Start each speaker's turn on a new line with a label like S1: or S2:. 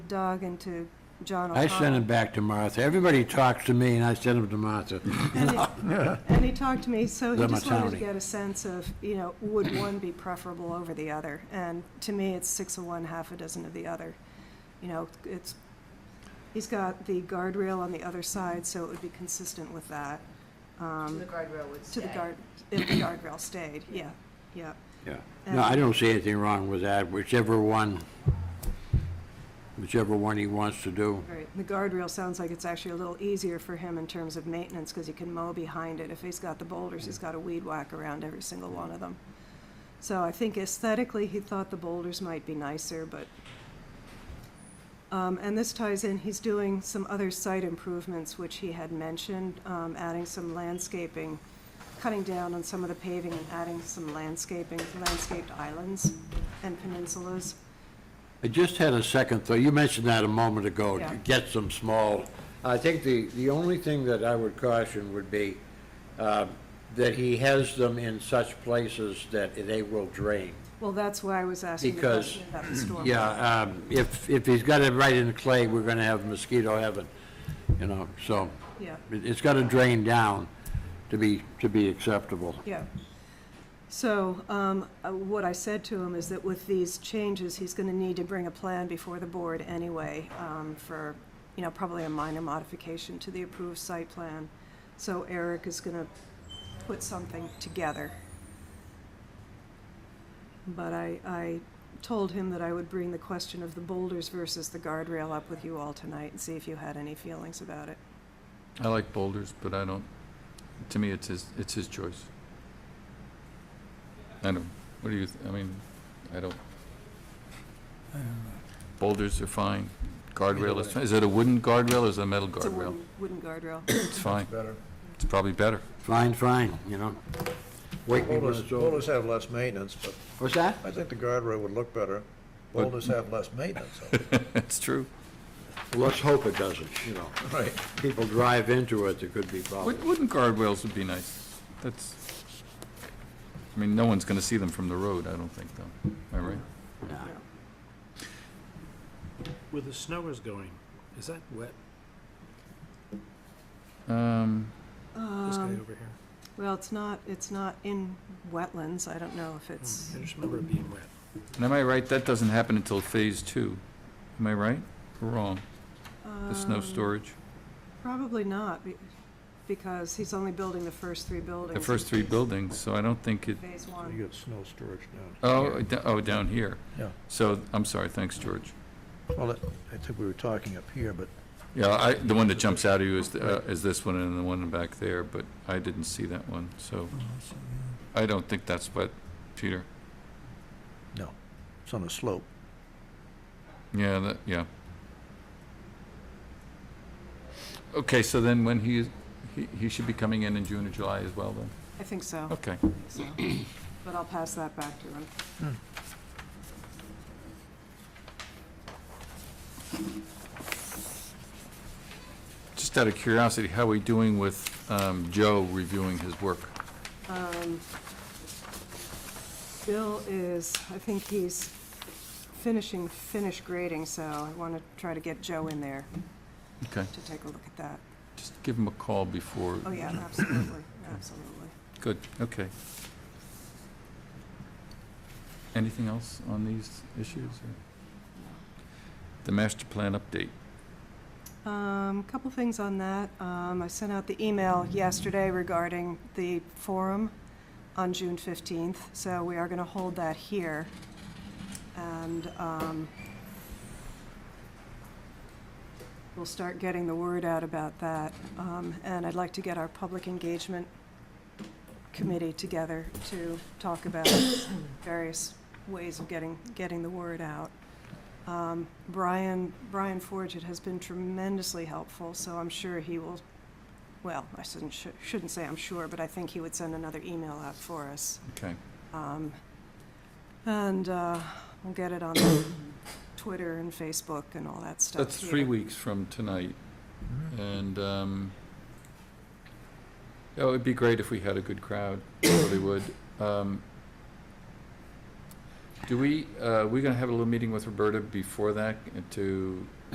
S1: Doug and to John
S2: I
S1: O'Connell.
S2: send them back to Martha. Everybody talks to me, and I send them to Martha.
S1: And he- And he talked to me, so he
S2: They're my
S1: just wanted to
S2: townie.
S1: get a sense of, you know, would one be preferable over the other? And to me, it's six of one, half a dozen of the other. You know, it's, he's got the guardrail on the other side, so it would be consistent with that.
S3: To
S1: Um,
S3: the guardrail would
S1: To
S3: stay.
S1: the guard, if the guardrail stayed, yeah, yeah.
S2: Yeah. No, I don't see anything wrong with that, whichever one, whichever one he wants to do.
S1: Right, the guardrail sounds like it's actually a little easier for him in terms of maintenance, because he can mow behind it. If he's got the boulders, he's got to weed whack around every single one of them. So I think aesthetically, he thought the boulders might be nicer, but, um, and this ties in, he's doing some other site improvements, which he had mentioned, um, adding some landscaping, cutting down on some of the paving and adding some landscaping, landscaped islands and peninsulas.
S2: I just had a second thought. You mentioned that a moment ago,
S1: Yeah.
S2: to get some small. I think the, the only thing that I would caution would be uh, that he has them in such places that they will drain.
S1: Well, that's why I was asking the
S2: Because-
S1: question about the storm.
S2: Yeah, um, if, if he's got it right in clay, we're going to have mosquito heaven, you know, so
S1: Yeah.
S2: it- it's got to drain down to be, to be acceptable.
S1: Yeah. So um, uh, what I said to him is that with these changes, he's going to need to bring a plan before the board anyway um, for, you know, probably a minor modification to the approved site plan. So Eric is going to put something together. But I, I told him that I would bring the question of the boulders versus the guardrail up with you all tonight and see if you had any feelings about it.
S4: I like boulders, but I don't, to me, it's his, it's his choice. I don't, what do you, th- I mean, I don't. Boulders are fine, guardrail is,
S5: way.
S4: fine. is it a wooden guardrail or is it a metal
S1: It's a
S4: guardrail?
S1: wooden, wooden guardrail.
S4: It's fine,
S5: Better.
S4: it's probably better.
S2: Fine, fine, you know. Wake me when
S5: Boulders,
S2: it's over.
S5: boulders have less maintenance, but
S2: What's that?
S5: I think the guardrail would look better.
S4: But-
S5: Boulders have less maintenance.
S4: It's true.
S2: Let's hope it doesn't, you know.
S5: Right.
S2: People drive into it, there could be
S4: Wood-
S2: problems.
S4: Wooden guardrails would be nice, that's, I mean, no one's gonna see them from the road, I don't think, though, am I right?
S2: Yeah.
S6: Where the snow is going, is that wet,
S4: Um,
S6: this guy
S1: Um,
S6: over here?
S1: Well, it's not, it's not in wetlands, I don't know if it's,
S6: I
S4: Hmm.
S6: just remember it being wet.
S4: and am I right, that doesn't happen until phase two, am I right or wrong, the snow
S1: Um,
S4: storage?
S1: probably not, be- because he's only building the first three buildings.
S4: the first three
S1: in
S4: buildings, so I don't think it,
S1: Phase
S5: So You
S1: one,
S5: got snow storage down.
S4: oh, d- oh, down here.
S5: Yeah.
S4: So, I'm sorry, thanks, George.
S5: Well, I think we were talking up here, but
S4: Yeah, I, the one that jumps out at you is, the- uh, is this one and the one back there, but I didn't see that one, so I don't think that's what, Peter,
S5: it's on a slope.
S4: yeah, that, yeah. Okay, so then when he, he, he should be coming in in June or July as well then?
S1: I think so, I
S4: Okay,
S1: think so. But I'll pass that back to him.
S4: just out of curiosity, how are we doing with, um, Joe reviewing his work?
S1: Um, Bill is, I think he's finishing, finished grading, so I want to try to get Joe in there
S4: Okay,
S1: to take a look at that.
S4: just give him a call before.
S1: Oh, yeah, absolutely, absolutely.
S4: Good, okay. Anything else on these issues? or- The master plan update.
S1: Um, couple things on that. Um, I sent out the email yesterday regarding the forum on June fifteenth, so we are gonna hold that here. And, um, we'll start getting the word out about that. Um, and I'd like to get our public engagement committee together to talk about various ways of getting, getting the word out. Um, Brian, Brian Forget has been tremendously helpful, so I'm sure he will, well, I shouldn't, sh- shouldn't say I'm sure, but I think he would send another email out for us.
S4: Okay,
S1: Um, And uh, we'll get it on the Twitter and Facebook and all that stuff.
S4: that's three
S1: here.
S4: weeks from tonight, and, um, oh, it'd be great if we had a good crowd, it really would. Um, Do we, uh, we gonna have a little meeting with Roberta before that to